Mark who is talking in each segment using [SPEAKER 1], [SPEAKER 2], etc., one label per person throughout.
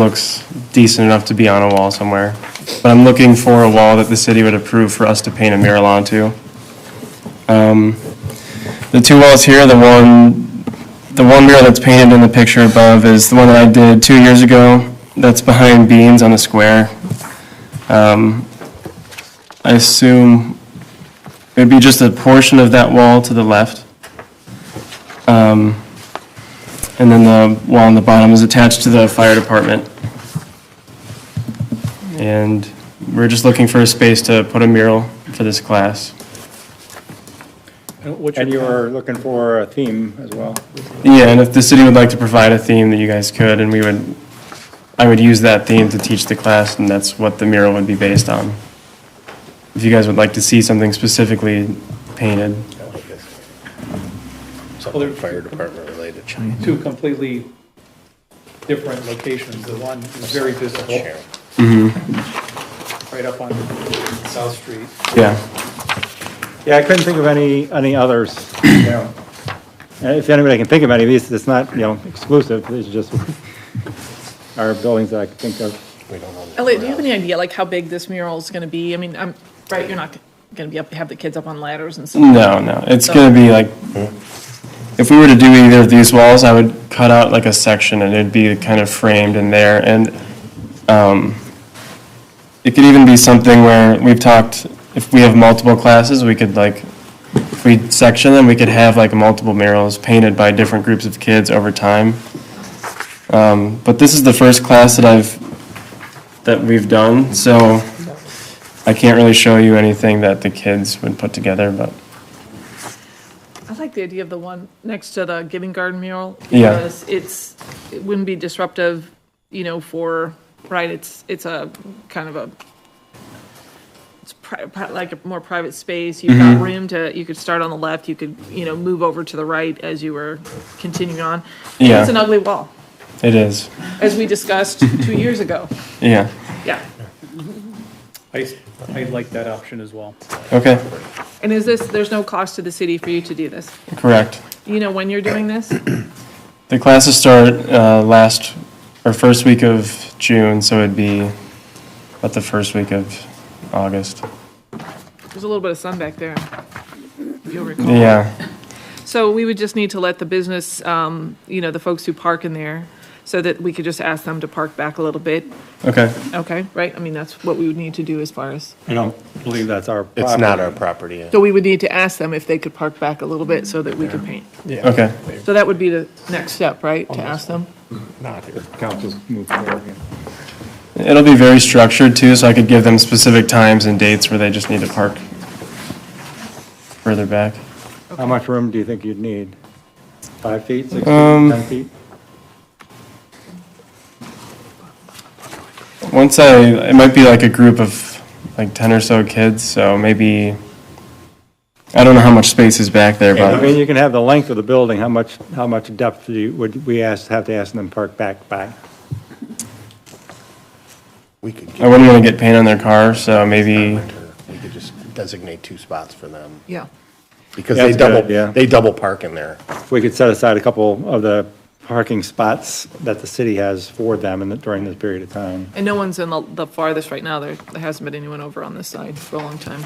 [SPEAKER 1] looks decent enough to be on a wall somewhere. But I'm looking for a wall that the city would approve for us to paint a mural onto. Um, The two walls here, the one, the one mural that's painted in the picture above is the one that I did two years ago. That's behind Beans on the square. Um, I assume it'd be just a portion of that wall to the left. Um, and then the wall on the bottom is attached to the fire department. And we're just looking for a space to put a mural for this class.
[SPEAKER 2] And Uh, what's
[SPEAKER 3] And you
[SPEAKER 2] your,
[SPEAKER 3] were looking for a theme as well.
[SPEAKER 1] Yeah, and if the city would like to provide a theme that you guys could, and we would, I would use that theme to teach the class, and that's what the mural would be based on. If you guys would like to see something specifically painted.
[SPEAKER 2] they're-
[SPEAKER 4] Something fire department related.
[SPEAKER 2] two completely different locations, the one is very visible, right up on South Street.
[SPEAKER 1] Yeah,
[SPEAKER 3] Yeah, I couldn't think of any, any others, you know. And If anybody can think of any of these, it's not, you know, exclusive, it's just our buildings that I can think of.
[SPEAKER 5] Elliot, do you have any idea, like, how big this mural is gonna be? I mean, I'm, right, you're not gonna be up, have the kids up on ladders and stuff?
[SPEAKER 1] no, no, it's gonna be like, if we were to do either of these walls, I would cut out like a section, and it'd be kind of framed in there, and um, it could even be something where we've talked, if we have multiple classes, we could like, if we section them, we could have like multiple murals painted by different groups of kids over time. Um, but this is the first class that I've, that we've done, so I can't really show you anything that the kids would put together, but
[SPEAKER 5] I like the idea of the one next to the Giving Garden mural.
[SPEAKER 1] Yeah.
[SPEAKER 5] because It's, it wouldn't be disruptive, you know, for, right, it's, it's a kind of a, it's pri- pri- like a more private space. You've
[SPEAKER 1] Mm-hmm.
[SPEAKER 5] got room to, you could start on the left, you could, you know, move over to the right as you were continuing on. And
[SPEAKER 1] Yeah.
[SPEAKER 5] It's an ugly wall,
[SPEAKER 1] it is,
[SPEAKER 5] as we discussed two years ago.
[SPEAKER 1] yeah,
[SPEAKER 5] Yeah.
[SPEAKER 2] I, s- I like that option as well.
[SPEAKER 1] okay,
[SPEAKER 5] And is this, there's no cost to the city for you to do this?
[SPEAKER 1] correct.
[SPEAKER 5] You know when you're doing this?
[SPEAKER 1] The classes start, uh, last, or first week of June, so it'd be about the first week of August,
[SPEAKER 5] There's a little bit of sun back there, if you'll recall.
[SPEAKER 1] yeah.
[SPEAKER 5] So we would just need to let the business, um, you know, the folks who park in there, so that we could just ask them to park back a little bit,
[SPEAKER 1] Okay,
[SPEAKER 5] okay, right? I mean, that's what we would need to do as far as,
[SPEAKER 3] I don't believe that's our
[SPEAKER 4] It's not
[SPEAKER 3] property.
[SPEAKER 4] our property. yeah.
[SPEAKER 5] so we would need to ask them if they could park back a little bit so that we could paint.
[SPEAKER 1] okay,
[SPEAKER 5] So that would be the next step, right, to ask them?
[SPEAKER 3] Council's moved forward. yeah.
[SPEAKER 1] it'll be very structured too, so I could give them specific times and dates where they just need to park further back.
[SPEAKER 3] How much room do you think you'd need? Five feet, six feet,
[SPEAKER 4] Um,
[SPEAKER 3] 10 feet?
[SPEAKER 1] Once I, it might be like a group of like ten or so kids, so maybe, I don't know how much space is back there,
[SPEAKER 3] I mean,
[SPEAKER 1] but,
[SPEAKER 3] you can have the length of the building, how much, how much depth do you, would we ask, have to ask them to park back by?
[SPEAKER 4] We could,
[SPEAKER 1] I
[SPEAKER 4] give
[SPEAKER 1] wouldn't wanna get paint on their car, so maybe,
[SPEAKER 4] her- we could just designate two spots for them,
[SPEAKER 5] Yeah.
[SPEAKER 4] because
[SPEAKER 3] Yeah,
[SPEAKER 4] they
[SPEAKER 3] that's good,
[SPEAKER 4] double,
[SPEAKER 3] yeah.
[SPEAKER 4] they double park in there.
[SPEAKER 3] We could set aside a couple of the parking spots that the city has for them in the- during this period of time.
[SPEAKER 5] And no one's in the, the farthest right now, there, there hasn't been anyone over on this side for a long time.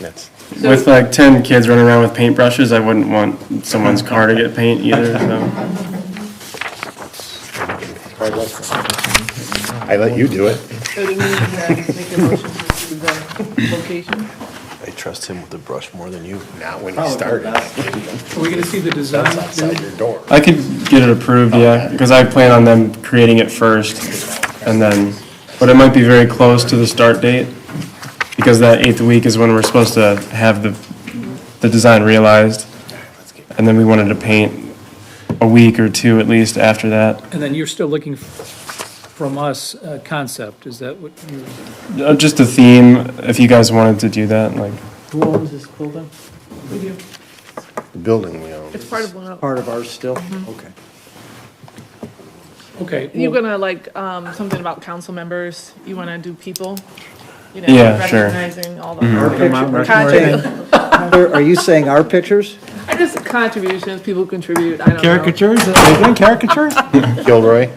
[SPEAKER 4] That's,
[SPEAKER 1] with like ten kids running around with paintbrushes, I wouldn't want someone's car to get paint either, so.
[SPEAKER 4] I let you do it.
[SPEAKER 5] So do we need to make a motion to approve the location?
[SPEAKER 4] I trust him with the brush more than you. Not when he started.
[SPEAKER 2] Are we gonna see the design?
[SPEAKER 4] That's outside your door.
[SPEAKER 1] I could get it approved, yeah, because I plan on them creating it first, and then, but it might be very close to the start date, because that eighth week is when we're supposed to have the, the design realized, and then we wanted to paint a week or two at least after that.
[SPEAKER 2] And then you're still looking f- from us, uh, concept, is that what you,
[SPEAKER 1] Uh, Just a theme, if you guys wanted to do that, like,
[SPEAKER 6] Who owns this building?
[SPEAKER 5] We do.
[SPEAKER 4] The building we own.
[SPEAKER 5] It's part of one of.
[SPEAKER 6] Part of ours still? Okay.
[SPEAKER 2] okay.
[SPEAKER 5] You're
[SPEAKER 2] well,
[SPEAKER 5] gonna like, um, something about council members, you wanna do people? you know,
[SPEAKER 1] Yeah, sure. Mm-hmm.
[SPEAKER 5] Recognizing all the.
[SPEAKER 6] Saying-
[SPEAKER 5] Contrib-
[SPEAKER 6] Are you saying our pictures?
[SPEAKER 5] I just, contributions, people contribute, I don't know.
[SPEAKER 6] Are you doing caricatures?
[SPEAKER 4] Gilroy?